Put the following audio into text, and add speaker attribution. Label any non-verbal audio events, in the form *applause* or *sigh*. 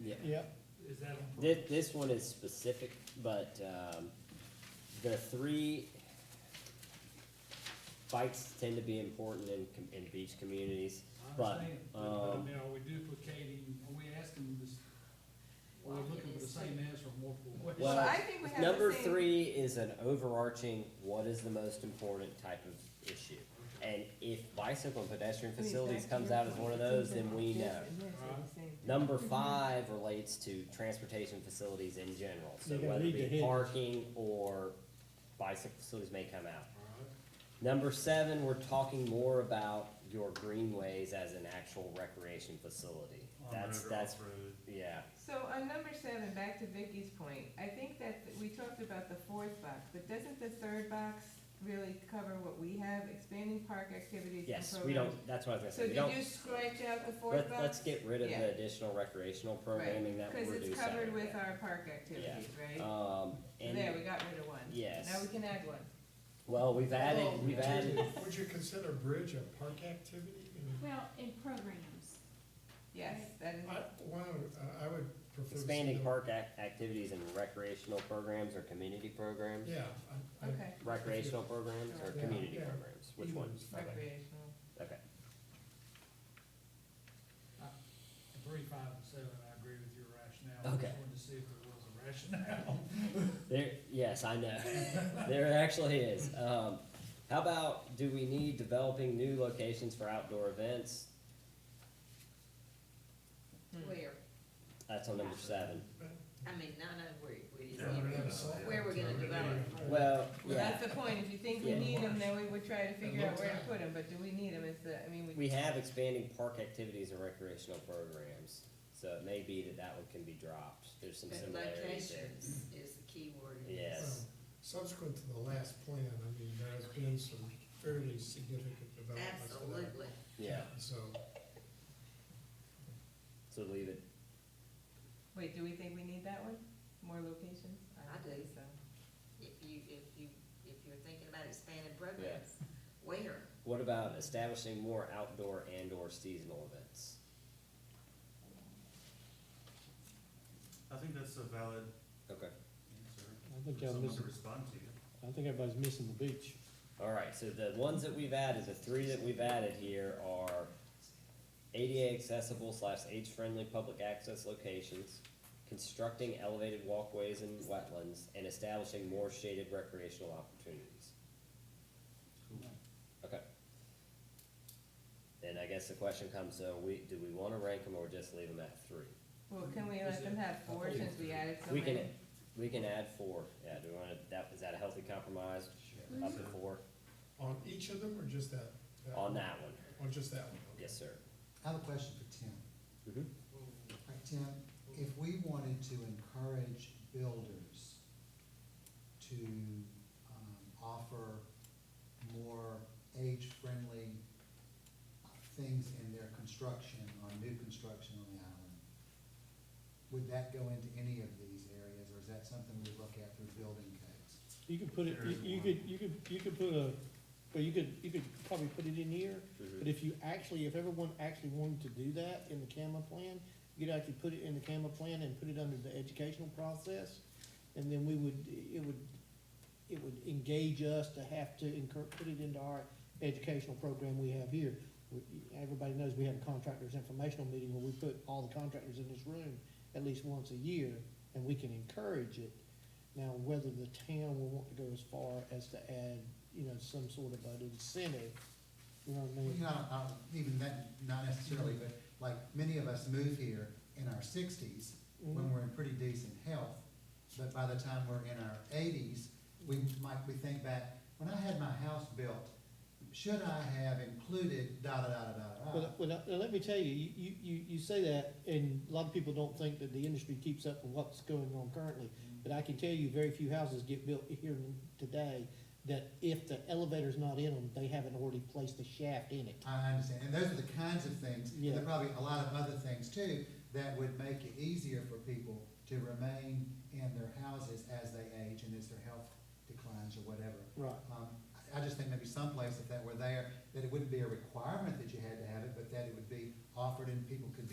Speaker 1: Yeah.
Speaker 2: Yep,
Speaker 3: Is that on
Speaker 1: This,
Speaker 3: purpose?
Speaker 1: this one is specific, but, um, the three bikes tend to be important in, com- in beach communities.
Speaker 3: I
Speaker 1: but,
Speaker 3: understand, but, but I
Speaker 1: um,
Speaker 3: mean, are we duplicating, are we asking this, are we
Speaker 4: Well,
Speaker 3: looking
Speaker 4: it
Speaker 3: for the
Speaker 4: is
Speaker 3: same answer on multiple questions?
Speaker 1: Well,
Speaker 4: Well, I think we have the same.
Speaker 1: Number three is an overarching, what is the most important type of issue? And if bicycle and pedestrian facilities comes out as one of those, then we know. Number
Speaker 4: Mm-hmm.
Speaker 1: five relates to transportation facilities in general, so
Speaker 2: You're gonna
Speaker 1: whether it
Speaker 2: need to
Speaker 1: be
Speaker 2: hit it.
Speaker 1: parking or bicycle facilities may come out.
Speaker 3: Alright,
Speaker 1: Number seven, we're talking more about your greenways as an actual recreation facility.
Speaker 5: Oh,
Speaker 1: That's, that's, yeah,
Speaker 4: So on number seven, back to Vicky's point, I think that th- we talked about the fourth box, but doesn't the third box really cover what we have, expanding park activities and programs?
Speaker 1: yes, we don't, that's what I was gonna
Speaker 4: So
Speaker 1: say, we
Speaker 4: did
Speaker 1: don't,
Speaker 4: you scratch out the fourth
Speaker 1: let,
Speaker 4: box?
Speaker 1: let's get rid of
Speaker 4: Yeah.
Speaker 1: the additional recreational programming that we're
Speaker 4: Cause
Speaker 1: doing.
Speaker 4: it's covered with our park activities, right?
Speaker 1: Um,
Speaker 4: There,
Speaker 1: and,
Speaker 4: we got rid of one.
Speaker 1: Yes.
Speaker 4: Now we can add one.
Speaker 1: well, we've added,
Speaker 5: Well,
Speaker 1: we've
Speaker 5: *laughs*
Speaker 1: added, *laughs*
Speaker 5: Would you consider bridge a park activity? I mean,
Speaker 6: Well, in programs,
Speaker 4: Yes, that is,
Speaker 5: I, one, I would prefer. to see
Speaker 1: expanding
Speaker 5: the-
Speaker 1: park ac- activities and recreational programs or community programs?
Speaker 5: Yeah. I- I-
Speaker 4: okay,
Speaker 1: Recreational programs or
Speaker 5: Yeah,
Speaker 1: community
Speaker 5: yeah.
Speaker 1: programs, which ones? Okay,
Speaker 4: recreational.
Speaker 1: okay,
Speaker 3: Three, five, and seven, I agree with your rationale. I
Speaker 1: Okay.
Speaker 3: just wanted to see if there was a rationale.
Speaker 1: there, yes, I *laughs* know, there actually is, um, how about, do we need developing new locations for outdoor events?
Speaker 4: Hmm.
Speaker 7: Where,
Speaker 1: That's on number seven,
Speaker 7: I mean, not know where, where you
Speaker 5: Yeah, we're
Speaker 7: see
Speaker 5: gonna solve
Speaker 7: Where we're
Speaker 5: it.
Speaker 7: gonna develop.
Speaker 1: well,
Speaker 4: Well,
Speaker 1: yeah,
Speaker 4: that's the point, if you think we
Speaker 1: Yeah.
Speaker 4: need them, then we would try to figure out
Speaker 5: looks
Speaker 4: where to
Speaker 5: like-
Speaker 4: put them, but do we need them, is the, I mean, we.
Speaker 1: we have expanding park activities and recreational programs, so it may be that that one can be dropped, there's some
Speaker 7: but
Speaker 1: similarities there.
Speaker 7: locations is the key word. in this.
Speaker 1: Yes,
Speaker 5: Subsequent to the last plan, I mean, there has been some fairly significant developments. to that.
Speaker 7: Absolutely.
Speaker 1: Hmm. yeah,
Speaker 5: So,
Speaker 1: so leave it,
Speaker 4: Wait, do we think we need that one? More locations?
Speaker 7: I do.
Speaker 4: think So,
Speaker 7: If you, if you, if you're thinking about expanding programs, where?
Speaker 1: what about establishing more outdoor and or seasonal events?
Speaker 8: I think that's a valid
Speaker 1: Okay.
Speaker 8: answer.
Speaker 2: I think
Speaker 8: for
Speaker 2: y'all
Speaker 8: Someone to
Speaker 2: missing,
Speaker 8: respond to
Speaker 2: I think everybody's missing the beach.
Speaker 1: All right, so the ones that we've added, the three that we've added here are ADA accessible slash age-friendly public access locations, constructing elevated walkways and wetlands, and establishing more shaded recreational opportunities. Okay. Then I guess the question comes, so we, do we wanna rank them or just leave them at three?
Speaker 4: well, can we let them have four since we added so
Speaker 1: We
Speaker 4: many?
Speaker 1: can, we can add four, yeah, do we wanna, that, is that a healthy compromise?
Speaker 5: Sure.
Speaker 1: Up to four,
Speaker 5: on each of them or just that? that
Speaker 1: on
Speaker 5: one?
Speaker 1: that one,
Speaker 5: On just that one? okay.
Speaker 1: yes, sir.
Speaker 9: I have a question for Tim.
Speaker 1: Mm-hmm.
Speaker 9: All right, Tim, if we wanted to encourage builders to um, offer more age-friendly things in their construction, on new construction on the island, would that go into any of these areas, or is that something we look at through building codes?
Speaker 2: You could put it, you- you could, you could, you could put a, well, you could, you could probably put it in here, but if you actually, if everyone actually wanted to do that in the CAMA plan, you could actually put it in the CAMA plan and put it under the educational process, and then we would, it would, it would engage us to have to incur, put it into our educational program we have here. We- Everybody knows we have a contractors informational meeting where we put all the contractors in this room at least once a year, and we can encourage it. Now, whether the town will want to go as far as to add, you know, some sort of an incentive, you know what I
Speaker 9: Well,
Speaker 2: mean?
Speaker 9: you know, uh, even that, not necessarily, but like, many of us move here in our sixties,
Speaker 2: Mm-hmm.
Speaker 9: when we're in pretty decent health, but by the time we're in our eighties, we might, we think back, when I had my house built, should I have included da da da da da da?
Speaker 2: Well, well, now, now let me tell you, you, you- you, you say that, and a lot of people don't think that the industry keeps up with what's going on currently.
Speaker 9: Mm-hmm.
Speaker 2: But I can tell you, very few houses get built here today, that if the elevator's not in them, they haven't already placed a shaft in it.
Speaker 9: I understand, and those are the kinds of things, and there
Speaker 2: Yeah.
Speaker 9: are probably a lot of other things too, that would make it easier for people to remain in their houses as they age and as their health declines or whatever.
Speaker 2: Right.
Speaker 9: Um, I- I just think maybe someplace if that were there, that it wouldn't be a requirement that you had to have it, but that it would be offered and people could be